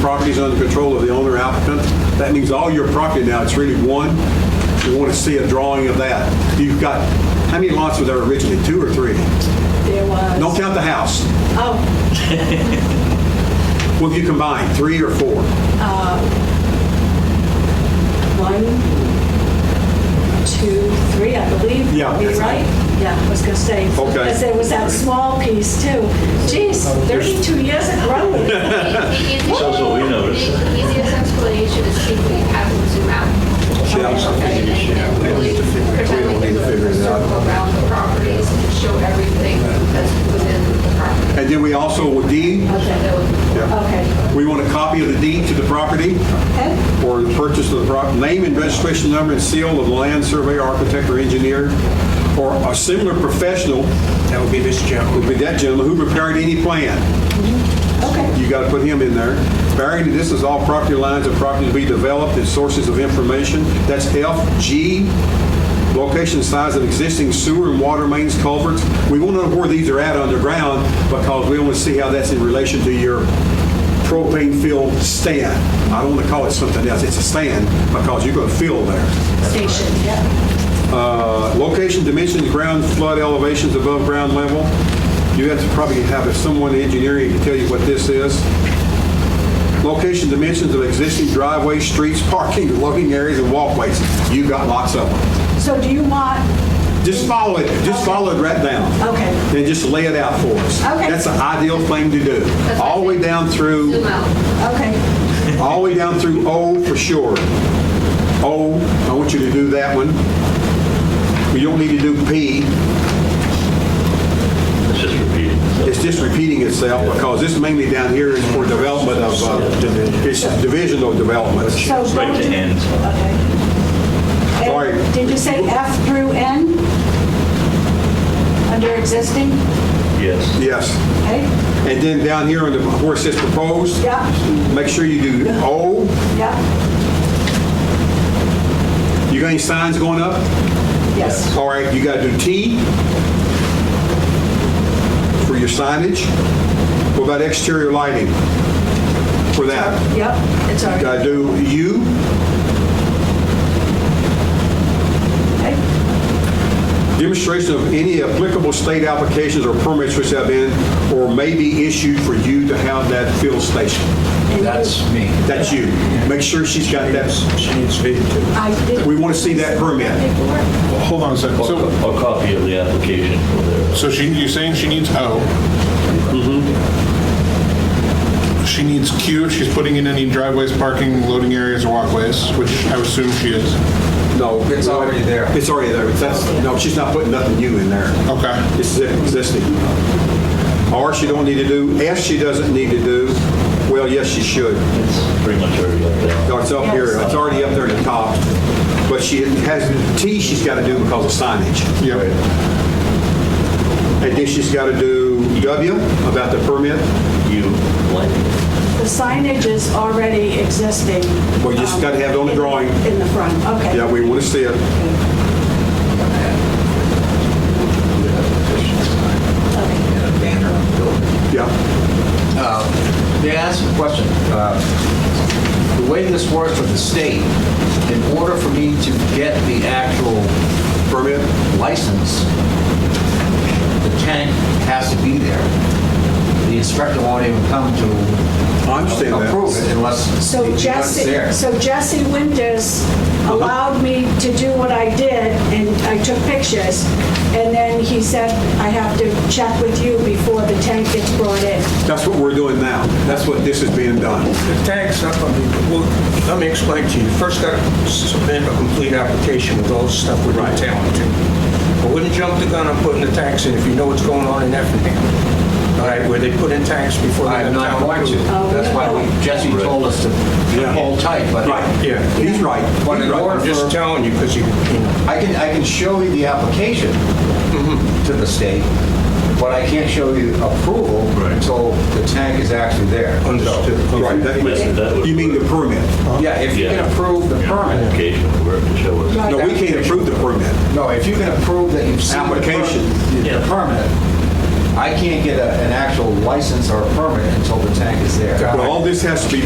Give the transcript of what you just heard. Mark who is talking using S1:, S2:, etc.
S1: property is under control of the owner applicant, that means all your property now, it's really one. We want to see a drawing of that. You've got, how many lots were there originally, two or three?
S2: There was.
S1: Don't count the house.
S2: Oh,
S1: What have you combined, three or four?
S2: one, two, three, I believe.
S1: Yeah,
S2: Be
S1: that's
S2: right?
S1: right.
S2: Yeah, I was gonna say.
S1: Okay.
S2: Because there was that small piece too. Geez, 32 years of growing.
S3: That's what we noticed.
S4: The easiest explanation is simply have them zoom out. Okay, and really pretend like it's a circle around the properties and show everything that's within the property.
S1: And then we also, with deed,
S4: That would-
S2: Okay.
S1: we want a copy of the deed to the property
S2: Okay.
S1: or the purchase of the property, name and registration number and seal of the land surveyor, architect, or engineer, or a similar professional,
S5: That would be this gentleman.
S1: would be that gentleman, who prepared any plan.
S2: Okay.
S1: You got to put him in there. Barry, this is all property lines of property to be developed and sources of information. That's F, G, location, size of existing sewer and water mains, culverts. We want to know where these are at underground because we want to see how that's in relation to your propane filled stand. I don't want to call it something else. It's a stand because you're going to fill there.
S2: Station, yeah.
S1: Uh, Location, dimensions, ground flood elevations above ground level. You have to probably have someone in engineering to tell you what this is. Location, dimensions of existing driveways, streets, parking, loading areas, and walkways. You got lots of them.
S2: So do you want,
S1: Just follow it, just follow it right down.
S2: Okay.
S1: And just lay it out for us.
S2: Okay.
S1: That's the ideal thing to do. All the way down through.
S4: Zoom out.
S2: okay,
S1: All the way down through O for sure. O, I want you to do that one. You don't need to do P.
S3: It's just repeating. itself.
S1: It's just repeating itself because this mainly down here is for development of, uh, it's divisional development.
S2: so.
S3: Right
S2: don't
S3: to
S2: you-
S3: end.
S2: Okay. And
S1: Sorry.
S2: Did you say F through N? Under existing?
S3: Yes.
S1: Yes.
S2: Okay,
S1: And then down here on the, where it says proposed,
S2: yeah,
S1: make sure you do O.
S2: yeah,
S1: You got any signs going up?
S2: yes.
S1: All right, you got to do T for your signage. What about exterior lighting for that?
S2: Yep, it's all right.
S1: Got to do U.
S2: Okay.
S1: Demonstration of any applicable state applications or permits which have been or may be issued for you to have that fill station.
S2: And you-
S5: That's me.
S1: That's you. Make sure she's got that.
S5: She needs feed too.
S2: I did.
S1: We want to see that permit.
S2: paperwork.
S6: Hold on a second.
S3: Or
S6: So,
S3: a copy of the application for their.
S6: so she, you're saying she needs O. Mm-hmm. She needs Q. She's putting in any driveways, parking, loading areas, or walkways, which I assume she is.
S1: No.
S5: It's already there. Uh-huh.
S1: It's already there. That's, no, she's not putting nothing new in there.
S6: Okay.
S1: It's existing. Or she don't need to do, F she doesn't need to do, well, yes, she should.
S3: It's pretty much already up there.
S1: No, It's up here, it's already up there at the top. But she has, T she's got to do because of signage.
S6: Yep.
S1: And then she's got to do W about the permit.
S3: You like it.
S2: The signage is already existing.
S1: Well, you just
S2: um,
S1: gotta have it on the
S2: in-
S1: drawing.
S2: In the front, okay.
S1: Yeah, we want to see it.
S2: Okay.
S5: Banner on the building.
S1: Yeah.
S5: May I ask a question? Uh, The way this works with the state, in order for me to get the actual
S1: Permit?
S5: license, the tank has to be there. The inspector won't even come to
S1: I understand that.
S5: approve it unless
S2: So
S5: it's
S2: Jesse,
S5: there.
S2: so Jesse Winters allowed me to do what I did, and I took pictures. And then he said, I have to check with you before the tank gets brought in.
S1: That's what we're doing now. That's what this is being done.
S7: The tags, I mean, well, let me explain to you. You First, got to submit a complete application with all the stuff we're
S1: Right.
S7: telling you. I wouldn't jump the gun on putting the tax in if you know what's going on in Effingham. All right, where they put in tax before they
S5: I'm
S7: have
S5: not
S7: town
S5: going to.
S7: approved.
S2: Oh,
S5: That's why we- Jesse told us to
S1: Yeah.
S5: hold tight, but
S1: Right.
S7: Yeah.
S1: He's right.
S5: But in
S1: He's
S5: order
S7: I'm
S1: right.
S7: just telling you because you, you know.
S5: I can, I can show you the application
S3: Mm-hmm.
S5: to the state, but I can't show you approval until the tank is actually there.
S7: Understood.
S1: Right.
S3: Yes, that
S1: that-
S3: would-
S1: You mean the permit?
S5: Yeah, if you
S3: Uh-huh. Yeah.
S5: can approve the
S3: Yeah,
S5: permit,
S3: Application, where to show us.
S1: No, we can't approve the permit.
S5: no, if you can approve that you've seen the per-
S1: Application.
S5: the
S3: Yeah.
S5: permit, I can't get a- an actual license or a permit until the tank is there.
S1: Well, all this has to be